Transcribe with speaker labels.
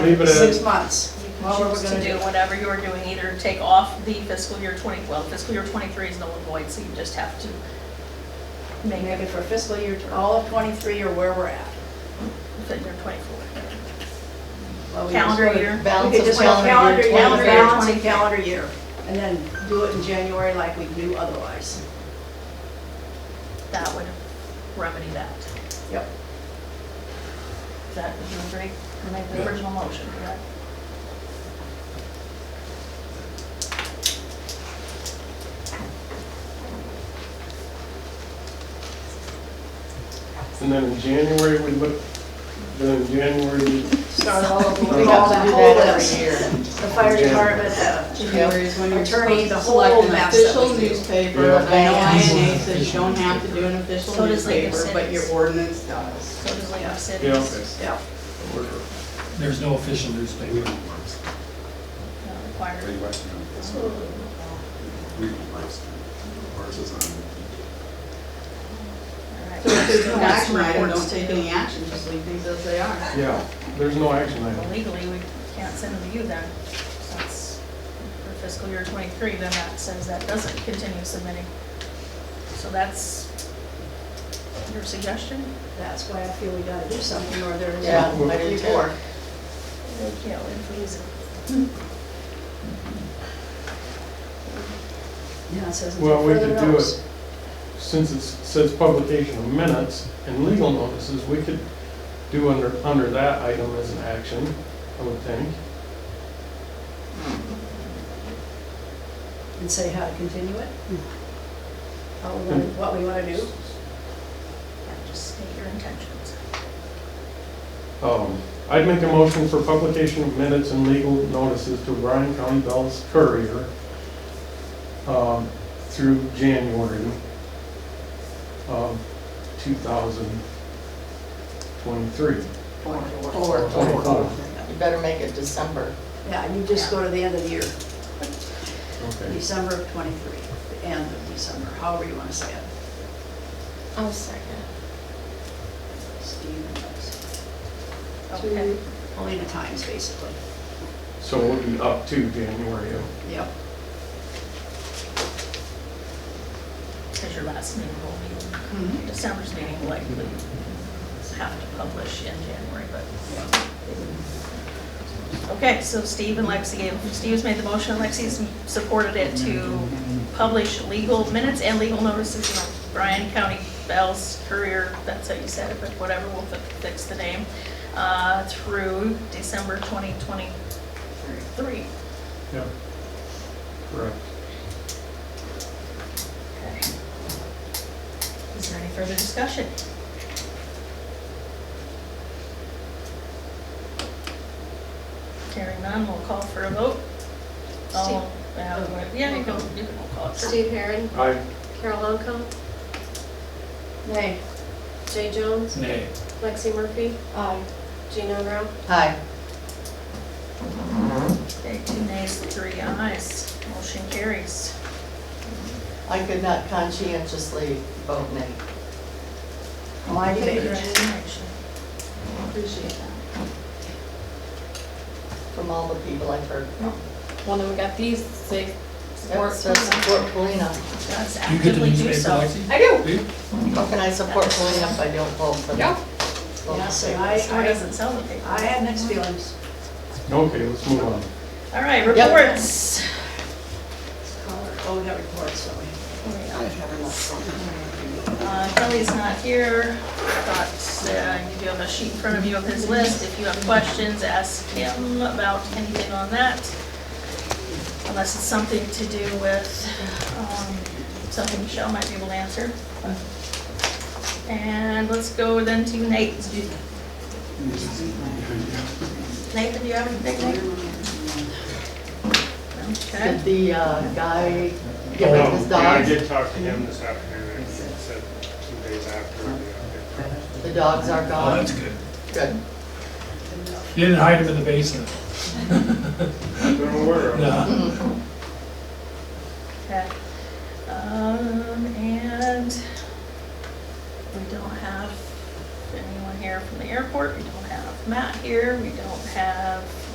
Speaker 1: Leave it in.
Speaker 2: six months, what were we
Speaker 3: choose to
Speaker 2: gonna
Speaker 3: do
Speaker 2: do?
Speaker 3: whatever you were doing, either take off the fiscal year 20, well, fiscal year 23 is null and void, so you just have to make
Speaker 2: Make
Speaker 3: it
Speaker 2: it for fiscal year, all of twenty-three or where we're at.
Speaker 3: fiscal year 24.
Speaker 2: Well, we just
Speaker 3: Calendar
Speaker 2: go to-
Speaker 3: year.
Speaker 2: We
Speaker 4: Balance
Speaker 2: could
Speaker 4: of
Speaker 2: just go calendar
Speaker 4: calendar year
Speaker 2: year,
Speaker 3: calendar year
Speaker 2: balance of
Speaker 3: 23.
Speaker 2: calendar year, and then do it in January like we do otherwise.
Speaker 3: That would remedy that.
Speaker 2: Yep.
Speaker 3: Is that, would you agree? You Make
Speaker 1: Yeah.
Speaker 3: the original motion, correct?
Speaker 1: And then in January, we look, then in January, we-
Speaker 2: Start all over.
Speaker 1: We have
Speaker 4: to
Speaker 2: The
Speaker 4: do
Speaker 2: whole
Speaker 4: that every
Speaker 2: list.
Speaker 4: year.
Speaker 2: The fire department, uh, the-
Speaker 4: January is when you're
Speaker 2: Attorney,
Speaker 4: supposed
Speaker 2: the
Speaker 4: to
Speaker 2: whole
Speaker 4: select an
Speaker 2: mess that
Speaker 4: official
Speaker 2: we do.
Speaker 4: newspaper.
Speaker 1: Yeah.
Speaker 4: I know INA says you don't have to do an official
Speaker 3: So does League of
Speaker 4: newspaper, but your
Speaker 3: Cities.
Speaker 4: ordinance does.
Speaker 3: So does League
Speaker 2: Yeah.
Speaker 3: of
Speaker 1: yeah,
Speaker 3: Cities.
Speaker 1: okay.
Speaker 2: yeah,
Speaker 5: There's no official newspaper.
Speaker 3: not required. Alright.
Speaker 4: So if there's no
Speaker 3: That's
Speaker 4: action item,
Speaker 3: reports
Speaker 4: don't
Speaker 3: to
Speaker 4: take
Speaker 3: do.
Speaker 4: any action, just leave things as they are.
Speaker 1: Yeah, there's no action
Speaker 3: Well,
Speaker 1: item.
Speaker 3: Legally, we can't send them to you then, since for fiscal year twenty-three, then that says that doesn't continue submitting. So that's your suggestion?
Speaker 2: that's why I feel we gotta do something or there's.
Speaker 4: Yeah,
Speaker 1: what
Speaker 4: do you
Speaker 2: Before.
Speaker 3: We can't win for using.
Speaker 2: Yeah, it says until
Speaker 1: Well, we
Speaker 2: further
Speaker 1: could do
Speaker 2: notice.
Speaker 1: it, since it says publication of minutes and legal notices, we could do under, under that item as an action, I would think.
Speaker 2: And say how to continue it. How we wanna, what we wanna do.
Speaker 3: Yeah, just state your intentions.
Speaker 1: Um, I'd make a motion for publication of minutes and legal notices to Bryan County Bell's Courier um, through January um, of 2023.
Speaker 4: Four.
Speaker 1: Four.
Speaker 4: You better make it December.
Speaker 2: Yeah, you just go to the end of the year,
Speaker 1: Okay.
Speaker 2: December of twenty-three, the end of December, however you wanna say it.
Speaker 6: I'll second.
Speaker 2: Steve and us.
Speaker 3: Okay.
Speaker 2: Only the times, basically.
Speaker 1: So it would be up to January of
Speaker 2: Yep.
Speaker 3: Because your last meeting will be, December's meeting likely have to publish in January, but. Okay, so Steve and Lexi gave, Steve's made the motion, Lexi's supported it to publish legal minutes and legal notices in the Bryan County Bell's Courier, that's how you said it, but whatever, we'll fi- fix the name, uh, through December 2023.
Speaker 1: Yeah. Correct.
Speaker 3: Is there any further discussion? Hearing none, we'll call for a vote. All- uh, Yeah, you can, you can call it.
Speaker 6: Steve Herron,
Speaker 1: I,
Speaker 6: Carol Longcom,
Speaker 2: Nay.
Speaker 6: Jay Jones,
Speaker 5: Nay.
Speaker 6: Lexi Murphy,
Speaker 2: Aye.
Speaker 6: Gina Brown.
Speaker 4: Hi.
Speaker 3: Okay, two nays, three ayes, motion carries.
Speaker 4: I could not conscientiously vote nay.
Speaker 2: Why do you?
Speaker 3: Congratulations.
Speaker 4: Appreciate that. From all the people I've heard from.
Speaker 6: Well, then we got these six.
Speaker 4: Yep, so Support Polina.
Speaker 3: Let's
Speaker 5: You get the
Speaker 3: actively do
Speaker 5: newspaper,
Speaker 3: so.
Speaker 5: Lexi?
Speaker 6: I do.
Speaker 5: Do you?
Speaker 4: How can I support Polina if I don't vote for them?
Speaker 6: Yeah.
Speaker 4: Vote
Speaker 2: Yeah, so
Speaker 4: for them.
Speaker 2: I,
Speaker 3: Store
Speaker 2: I,
Speaker 3: doesn't sell the paper.
Speaker 2: I have mixed feelings.
Speaker 1: okay, let's move on.
Speaker 3: All right,
Speaker 4: Yep.
Speaker 3: reports.
Speaker 2: Oh, we got reports, don't we?
Speaker 3: Uh, Kelly's not here, but uh, you do have a sheet in front of you of his list. If you have questions, ask him about anything on that. Unless it's something to do with, um, something Michelle might be able to answer. And let's go then to Nate. Nathan, do you have anything? Okay.
Speaker 4: Did the uh, guy get rid of his
Speaker 7: No, I
Speaker 4: dog?
Speaker 7: did talk to him this afternoon, and he said two days after. I'd be out there.
Speaker 4: The dogs are
Speaker 5: Oh,
Speaker 4: gone?
Speaker 5: that's good.
Speaker 4: Good.
Speaker 5: You didn't hide him in the basement.
Speaker 7: I've been aware of it.
Speaker 5: No.
Speaker 3: Okay, um, and we don't have anyone here from the airport, we don't have Matt here, we don't have